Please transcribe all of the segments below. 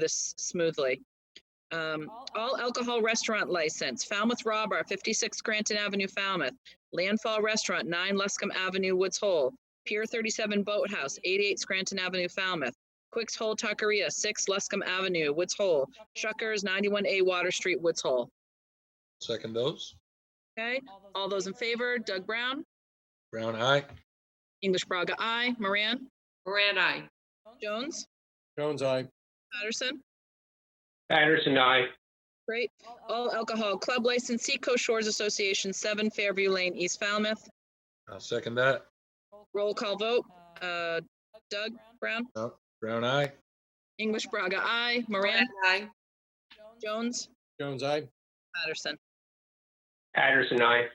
this smoothly. Um, all alcohol restaurant license, Falmouth Raw Bar, 56 Granton Avenue, Falmouth. Landfall Restaurant, 9 Luscombe Avenue, Woods Hole. Pier 37 Boathouse, 88 Scranton Avenue, Falmouth. Quick's Hole Tuckeria, 6 Luscombe Avenue, Woods Hole. Shuckers, 91A Water Street, Woods Hole. Second those. Okay, all those in favor, Doug Brown, Brown, eye. English Braga, I, Moran, Moran, I. Jones, Jones, aye. Patterson. Patterson, aye. Great. All alcohol club license, Seacoast Shores Association, 7 Fairview Lane, East Falmouth. I'll second that. Roll call vote, uh, Doug Brown, Brown, eye. English Braga, I, Moran, I. Jones, Jones, aye. Patterson. Patterson, aye.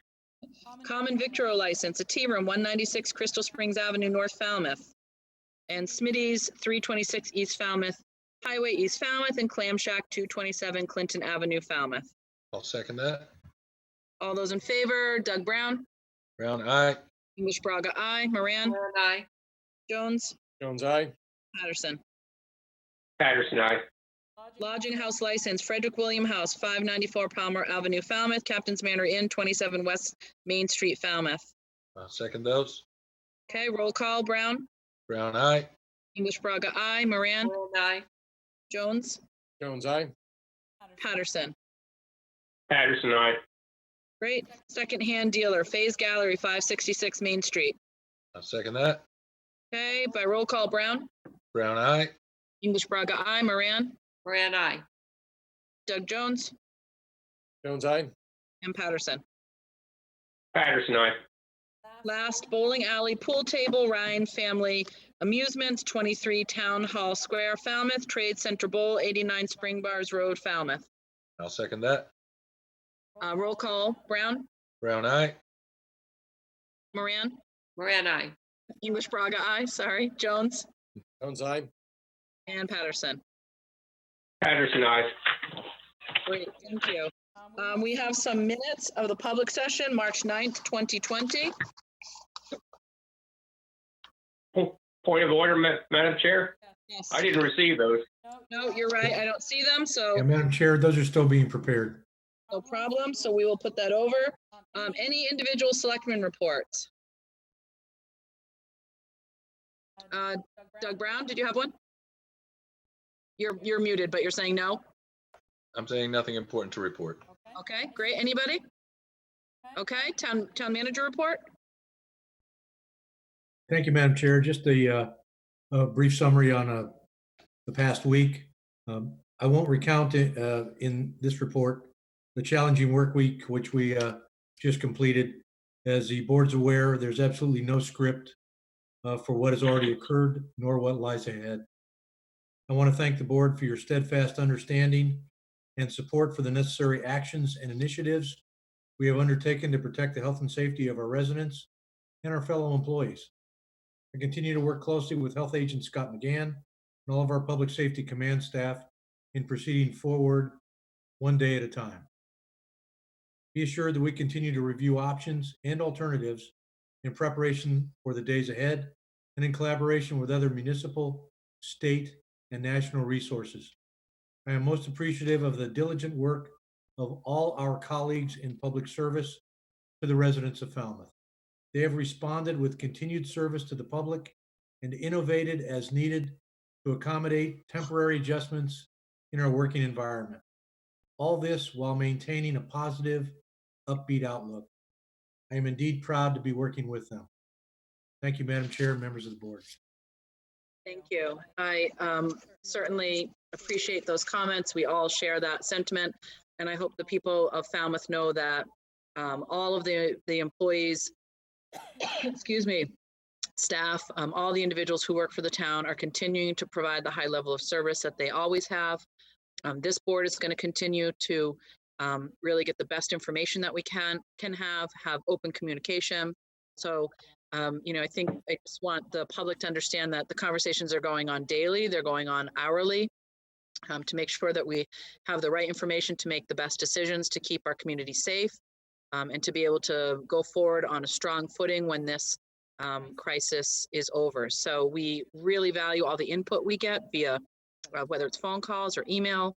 Common Victro license, a tea room, 196 Crystal Springs Avenue, North Falmouth. And Smitty's, 326 East Falmouth Highway, East Falmouth, and Clam Shack, 227 Clinton Avenue, Falmouth. I'll second that. All those in favor, Doug Brown, Brown, eye. English Braga, I, Moran, Moran, I. Jones, Jones, aye. Patterson. Patterson, aye. Lodging house license, Frederick William House, 594 Palmer Avenue, Falmouth, Captain's Manor Inn, 27 West Main Street, Falmouth. I'll second those. Okay, roll call, Brown, Brown, eye. English Braga, I, Moran, Moran, I. Jones, Jones, aye. Patterson. Patterson, aye. Great. Secondhand dealer, Faze Gallery, 566 Main Street. I'll second that. Okay, by roll call, Brown, Brown, eye. English Braga, I, Moran, Moran, I. Doug Jones, Jones, aye. and Patterson. Patterson, aye. Last bowling alley, pool table, Ryan Family Amusements, 23 Town Hall Square, Falmouth, Trade Center Bowl, 89 Spring Bars Road, Falmouth. I'll second that. Uh, roll call, Brown, Brown, eye. Moran, Moran, I. English Braga, I, sorry, Jones, Jones, aye. and Patterson. Patterson, aye. Great, thank you. Um, we have some minutes of the public session, March 9th, 2020. Point of order, Ma- Madam Chair? Yes. I didn't receive those. No, you're right, I don't see them, so Yeah, Madam Chair, those are still being prepared. no problem, so we will put that over. Um, any individual selectmen reports? Uh, Doug Brown, did you have one? You're, you're muted, but you're saying no? I'm saying nothing important to report. Okay, great. Anybody? Okay, town, town manager report? Thank you, Madam Chair. Just a, uh, a brief summary on, uh, the past week. Um, I won't recount it, uh, in this report, the challenging work week, which we, uh, just completed. As the board's aware, there's absolutely no script, uh, for what has already occurred nor what lies ahead. I want to thank the board for your steadfast understanding and support for the necessary actions and initiatives we have undertaken to protect the health and safety of our residents and our fellow employees. I continue to work closely with Health Agent Scott McGann and all of our Public Safety Command staff in proceeding forward one day at a time. Be assured that we continue to review options and alternatives in preparation for the days ahead and in collaboration with other municipal, state, and national resources. I am most appreciative of the diligent work of all our colleagues in public service to the residents of Falmouth. They have responded with continued service to the public and innovated as needed to accommodate temporary adjustments in our working environment. All this while maintaining a positive, upbeat outlook. I am indeed proud to be working with them. Thank you, Madam Chair, and members of the board. Thank you. I um, certainly appreciate those comments. We all share that sentiment. And I hope the people of Falmouth know that um, all of the, the employees, excuse me, staff, um, all the individuals who work for the town are continuing to provide the high level of service that they always have. Um, This board is going to continue to um, really get the best information that we can, can have, have open communication. So um, you know, I think I just want the public to understand that the conversations are going on daily, they're going on hourly, um, to make sure that we have the right information to make the best decisions to keep our community safe, um, and to be able to go forward on a strong footing when this um, crisis is over. So we really value all the input we get via uh, whether it's phone calls or email.